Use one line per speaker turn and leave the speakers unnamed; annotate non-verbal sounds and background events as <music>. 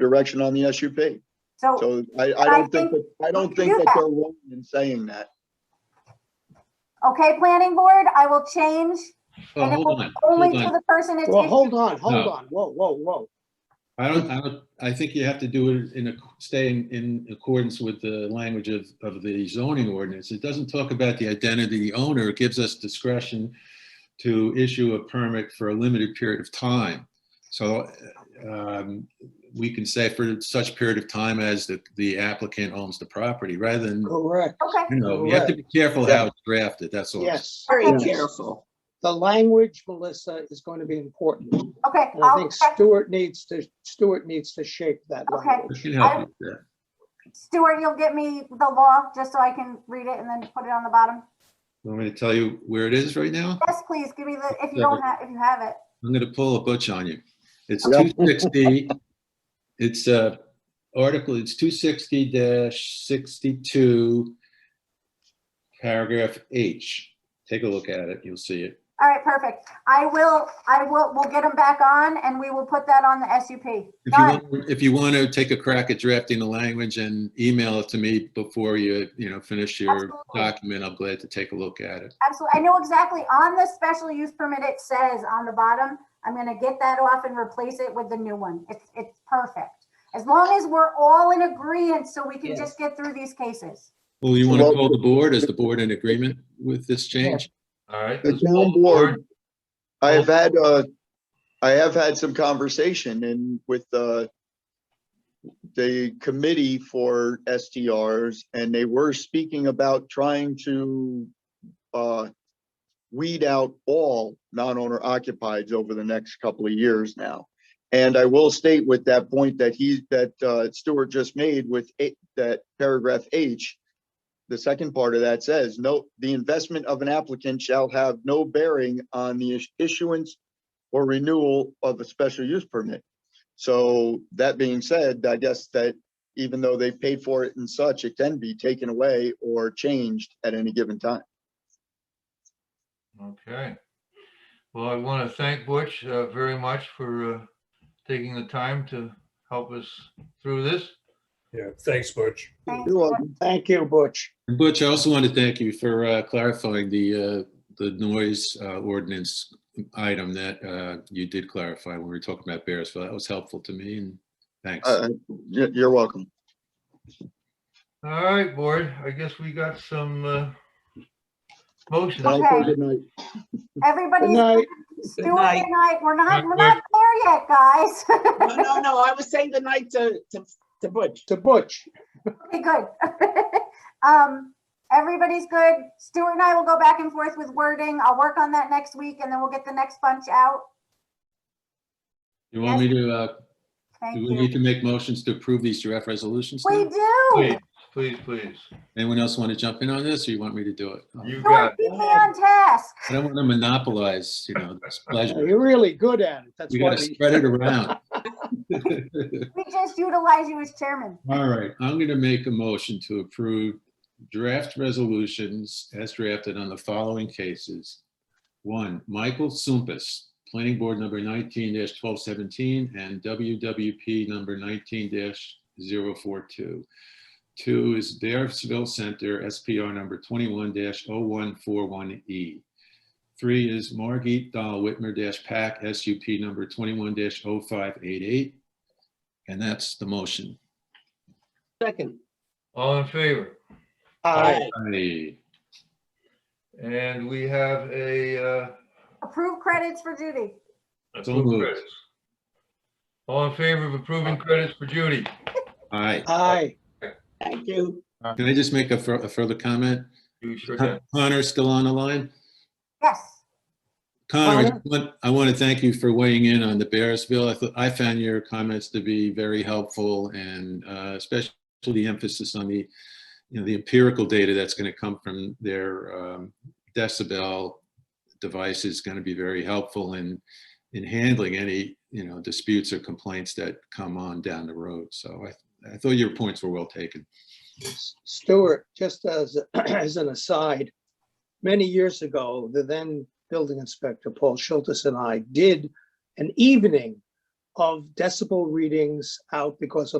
direction on the SUP.
So,
So I, I
Oh, I
don't think,
think
that I don't
we can
think
do
that
that.
they're wrong in saying that.
okay, planning board, I will change
Well,
And it
hold on,
only
hold
to
on.
the person it's
Well,
issued.
hold on, hold
No.
on. Whoa, whoa, whoa.
I don't, I don't, I think you have to do it in a, stay in, in accordance with the language of, of the zoning ordinance. It doesn't talk about the identity of the owner. It gives us discretion to issue a permit for a limited period of time. So, um, we can say for such period of time as the, the applicant owns the property, rather than,
Correct.
Okay,
you know, you have to be careful how it's drafted, that's all.
Yes.
Very
yes.
careful.
The language, Melissa, is going to be important.
okay,
And I
I'll
think
check.
Stuart needs to, Stuart needs to shape that
Okay.
language.
We can help you with that.
Stuart, you'll get me the law just so I can read it and then put it on the bottom.
Want me to tell you where it is right now?
Yes, please, give me the, if you don't have, if you have it.
I'm gonna pull a butch on you. It's
Yeah.
two sixty, it's a article, it's two sixty sixty-two, paragraph H. Take a look at it, you'll see it.
All right, perfect. I will, I will, we'll get them back on and we will put that on the SUP.
If you,
Done.
want- if you want to take a crack at drafting the language and email it to me before you, you know, finish your
Absolutely.
document, I'm glad to take a look at it.
Absolutely. I know exactly. On the special use permit, it says on the bottom, I'm gonna get that off and replace it with the new one. It's, it's perfect. As long as we're all in agreement, so we can
Yes.
just get through these cases.
Well, you want to
Well-
call the board? Is the board in agreement with this change? All right.
The
let's call
town board, I have had, uh, I have had some conversation and with, uh, the committee for STRs and they were speaking about trying to, uh, weed out all non-owner occupieds over the next couple of years now. And I will state with that point that he, that, uh, Stuart just made with eight, that paragraph H, the second part of that says, no, the investment of an applicant shall have no bearing on the is- issuance or renewal of a special use permit. So that being said, I guess that even though they paid for it and such, it can be taken away or changed at any given time.
Okay. Well, I want to thank Butch uh, very much for uh, taking the time to help us through this.
Yeah, thanks, Butch.
Thanks.
You're welcome.
Thank you, Butch.
And Butch, I also want to thank you for uh, clarifying the, uh, the noise uh, ordinance item that uh, you did clarify when we were talking about Bearsville. That was helpful to me and thanks.
Uh, you- You're welcome.
All right, board, I guess we got some uh, motions.
Thank you.
Okay.
Good night.
Good
Everybody's
night.
Stuart,
night.
good night. We're not,
Good
we're not there yet, guys. <laughs>
No, no, no, I was saying goodnight to, to, to Butch.
To Butch.
Okay, good. <laughs> Um, everybody's good. Stuart and I will go back and forth with wording. I'll work on that next week and then we'll get the next bunch out.
You want me to, uh,
Thank
do we need
you.
to make motions to approve these draft resolutions? now?
We do.
Please, please, please.
Anyone else want to jump in on this or you want me to do it?
You got
Stuart,
it.
keep me on task.
I don't want to monopolize, you know, this pleasure.
You're really good at it. That's
We
why
got to
we,
spread it around.
We just utilize you as chairman.
All right, I'm going to make a motion to approve draft resolutions as drafted on the following cases. One, Michael Sumpus, Planning Board Number 19-1217 and WWP Number 19-042. Two is Bearsville Center, SPR Number 21-0141E. E. Three is Margit Dahl Whitmer-Pack, SUP Number 21-0588. And that's the motion.
second.
All in favor?
Aye.
Aye.
And we have a. uh,
Approve credits for Judy.
So
approve
moved.
credits. All in favor of approving credits for Judy?
Aye.
Aye.
Thank you.
Can I just make a fur- a further comment?
You sure can.
Connor, still on the line?
Yes.
Connor, I
Connor?
want- I want to thank you for weighing in on the Bearsville. I thought, I found your comments to be very helpful and uh, especially the emphasis on the, you know, the empirical data that's going to come from their um, decibel device is going to be very helpful in, in handling any, you know, disputes or complaints that come on down the road. So I, I thought your points were well taken.
Stuart, just as, <clears throat> as an aside, many years ago, the then building inspector, Paul Schultes and I did an evening of decibel readings out because of.